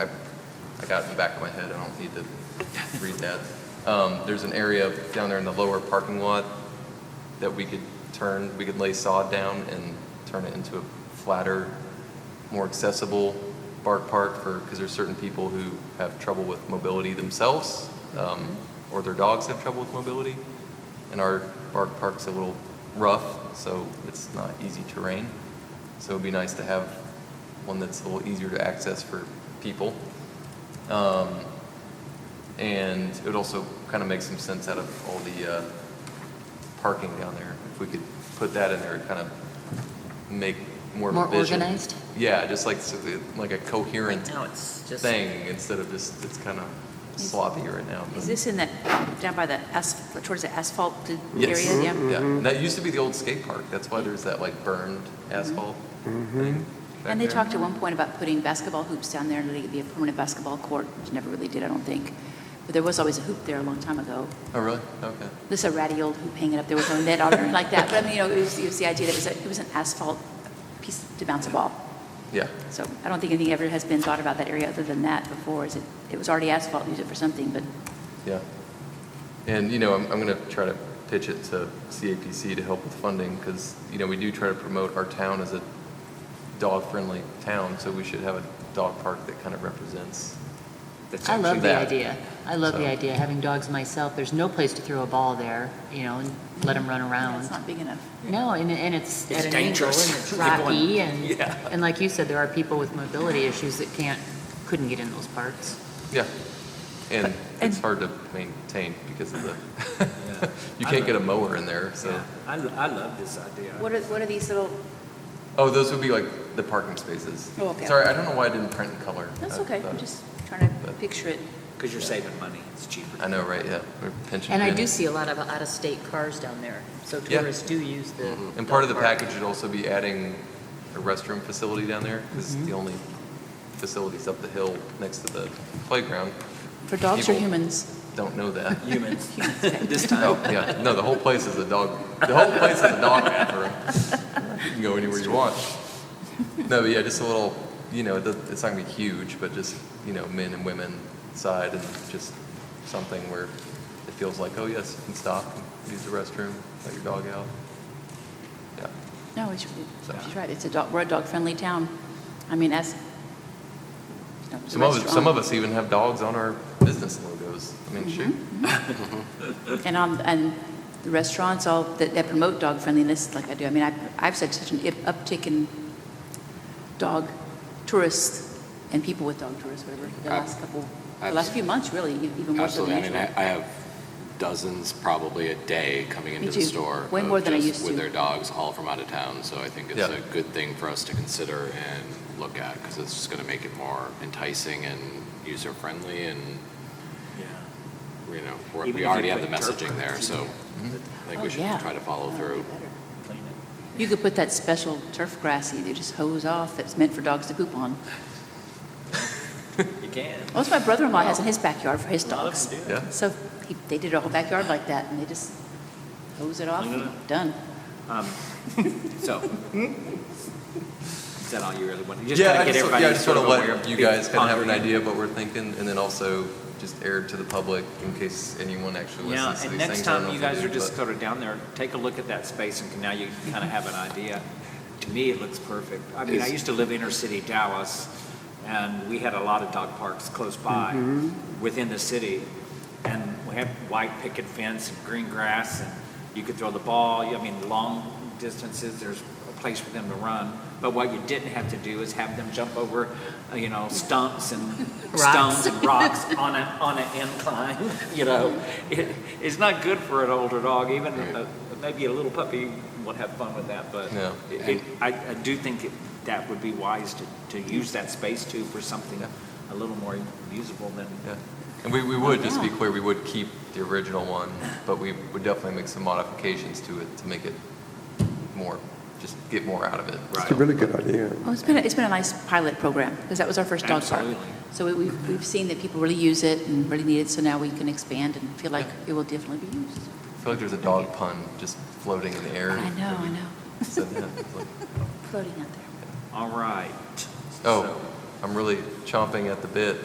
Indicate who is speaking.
Speaker 1: out in the back of my head, I don't need to read that. Um, There's an area down there in the lower parking lot that we could turn, we could lay sod down and turn it into a flatter, more accessible bark park for, because there's certain people who have trouble with mobility themselves, um, or their dogs have trouble with mobility. And our bark park's a little rough, so it's not easy terrain. So it'd be nice to have one that's a little easier to access for people. Um, and it would also kind of make some sense out of all the uh, parking down there. If we could put that in there, it'd kind of make more of a
Speaker 2: More
Speaker 1: vision.
Speaker 2: organized?
Speaker 1: Yeah, just like, so the- like a coherent
Speaker 3: Now it's just.
Speaker 1: thing instead of just, it's kind of sloppy right now. but-
Speaker 4: Is this in that, down by the asphalt, towards the asphalted area?
Speaker 1: Yes. Mm-hmm.
Speaker 4: Yeah.
Speaker 1: Yeah, and that used to be the old skate park. That's why there's that like burned
Speaker 3: Mm-hmm.
Speaker 1: asphalt thing. back
Speaker 2: And they
Speaker 1: there.
Speaker 2: talked at one point about putting basketball hoops down there, and it'd be a permanent basketball court, which never really did, I don't think. But there was always a hoop there a long time ago.
Speaker 1: Oh, really? Okay.
Speaker 2: This a ratty old hoop hanging up there with no net on it or like that. But I mean, you know, it was, it was the idea that it was, a- it was an asphalt piece to bounce a ball.
Speaker 1: Yeah.
Speaker 2: So I don't think anything ever has been thought about that area other than that before, is it, it was already asphalt, use it for something, but
Speaker 1: Yeah. And, you know, I'm, I'm going to try to pitch it to CAPC to help with funding because, you know, we do try to promote our town as a dog-friendly town, so we should have a dog park that kind of represents.
Speaker 3: That's
Speaker 1: I
Speaker 3: it.
Speaker 1: like
Speaker 3: All
Speaker 1: it.
Speaker 3: right,
Speaker 1: actually
Speaker 5: I love the
Speaker 1: that.
Speaker 5: idea. I love the
Speaker 1: So-
Speaker 5: idea, having dogs myself, there's no place to throw a ball there, you know, and let them run around.
Speaker 2: it's not big enough.
Speaker 5: No, and, and it's
Speaker 3: It's
Speaker 5: at an angle, and
Speaker 3: dangerous.
Speaker 5: it's
Speaker 3: You're going-
Speaker 5: rocky, and,
Speaker 3: Yeah.
Speaker 5: and like you said, there are people with mobility issues that can't, couldn't get in those parks.
Speaker 1: Yeah. And
Speaker 4: and-
Speaker 1: it's hard to maintain because of the, you can't get a mower in there, so.
Speaker 6: Yeah, I, lo- I love this idea.
Speaker 4: What are, what are these little,
Speaker 1: Oh, those would be like the parking spaces.
Speaker 4: Oh, okay.
Speaker 1: Sorry, I don't know why I didn't print in color.
Speaker 4: that's
Speaker 1: I-
Speaker 4: okay,
Speaker 1: I-
Speaker 4: I'm just trying to
Speaker 1: but-
Speaker 4: picture it.
Speaker 6: Because you're saving money, it's cheaper.
Speaker 1: I know, right, yeah. We're pinching
Speaker 5: And I do
Speaker 1: pennies.
Speaker 5: see a lot of out-of-state cars down there, so
Speaker 1: Yeah. Mm-hmm.
Speaker 5: tourists do use the.
Speaker 1: And part of the
Speaker 5: dog park.
Speaker 1: package would also be adding a restroom facility down there, because the only facilities up the hill next to the playground
Speaker 2: For dogs or
Speaker 1: People-
Speaker 2: humans?
Speaker 1: don't know that.
Speaker 6: Humans, this
Speaker 1: Oh,
Speaker 6: time.
Speaker 1: yeah, no, the whole place is a dog, the whole place is a dog bathroom. You can go anywhere you want. No, but yeah, just a little, you know, it does- it's not gonna be huge, but just, you know, men and women side and just something where it feels like, oh, yes, you can stop, and use the restroom, let your dog out. Yeah,
Speaker 2: No, it's- she's right, it's a dog, we're a dog-friendly town. I mean, as.
Speaker 1: Some of, us- some of us even have dogs on our business logos. I mean, shoot.
Speaker 2: And on, and the restaurants all, that, that promote dog friendliness like I do, I mean, I, I've said such an up- uptick in dog tourists and people with dog tourists, whatever, the
Speaker 7: Ab-
Speaker 2: last couple, the last few months, really, e- even more so
Speaker 7: Absolutely.
Speaker 2: than
Speaker 7: I mean,
Speaker 2: usual.
Speaker 7: I I have dozens probably a day coming
Speaker 2: Me
Speaker 7: into the
Speaker 2: too.
Speaker 7: store.
Speaker 2: Way
Speaker 7: of
Speaker 2: more than I
Speaker 7: just
Speaker 2: used to.
Speaker 7: With their dogs, all from out of town. So I think it's
Speaker 1: Yeah.
Speaker 7: a good thing for us to consider and look at because it's just going to make it more enticing and user-friendly and,
Speaker 6: Yeah.
Speaker 7: you know,
Speaker 6: Even
Speaker 7: we're-
Speaker 6: if
Speaker 7: we
Speaker 6: you
Speaker 7: already have the
Speaker 6: put
Speaker 7: messaging there.
Speaker 6: interpreters
Speaker 7: So
Speaker 6: in it,
Speaker 7: I think
Speaker 2: Oh,
Speaker 7: we should
Speaker 2: yeah.
Speaker 7: try to follow
Speaker 2: That would be
Speaker 7: through.
Speaker 2: better.
Speaker 6: clean it.
Speaker 2: You could put that special turf grass, you just hose off, that's meant for dogs to poop on.
Speaker 6: You can.
Speaker 2: Well, that's what my brother-in-law has in his backyard for his
Speaker 6: A lot of
Speaker 2: dogs.
Speaker 6: them do.
Speaker 1: Yeah.
Speaker 2: So he, they did a whole backyard like that, and they just hose it off,
Speaker 6: Clean it
Speaker 2: and done.
Speaker 6: So. Is that all you really want? You just
Speaker 1: Yeah,
Speaker 6: kinda
Speaker 1: I
Speaker 6: get
Speaker 1: just,
Speaker 6: everybody
Speaker 1: yeah, I just
Speaker 6: sort
Speaker 1: want to
Speaker 6: of aware
Speaker 1: let
Speaker 6: of
Speaker 1: you
Speaker 6: big
Speaker 1: guys kind of have an
Speaker 6: pondering.
Speaker 1: idea of what we're thinking, and then also just air it to the public in case anyone actually
Speaker 6: Yeah,
Speaker 1: listens to these
Speaker 6: and
Speaker 1: things.
Speaker 6: next
Speaker 1: I don't
Speaker 6: time
Speaker 1: know
Speaker 6: you
Speaker 1: if we
Speaker 6: guys
Speaker 1: do,
Speaker 6: are just
Speaker 1: but-
Speaker 6: sort of down there, take a look at that space and can- now you kind of have an idea. To me, it looks perfect. I mean, I
Speaker 7: Is-
Speaker 6: used to live inner city Dallas and we had a lot of dog parks close by
Speaker 1: Mm-hmm.
Speaker 6: within the city. And we had white picket fence and green grass and you could throw the ball. I mean, long distances, there's a place for them to run. But what you didn't have to do is have them jump over, uh, you know, stumps and
Speaker 5: Rocks.
Speaker 6: stones and rocks on a, on an incline, you know. It, it's not good for an older dog, even a, maybe a little puppy would have fun with that, but
Speaker 1: Yeah.
Speaker 6: it, it- I, I do think it- that would be wise to, to use that space too for something a little more usable than,
Speaker 1: Yeah. And we, we would, just to be clear, we would keep the original one, but we would definitely make some modifications to it to make it more, just get more out of it.
Speaker 6: Right.
Speaker 8: It's a really good idea.
Speaker 2: Well, it's been, it's been a nice pilot program, because that was our first dog park.
Speaker 6: Absolutely.
Speaker 2: So we- we've, we've seen that people really use it and really need it, so now we can expand and feel like it will definitely be used.
Speaker 1: I feel like there's a dog pun just floating in the air.
Speaker 2: I know, I know,
Speaker 1: So, yeah, it's like-
Speaker 2: floating out there.
Speaker 6: all right.
Speaker 1: Oh, I'm really chomping at the bit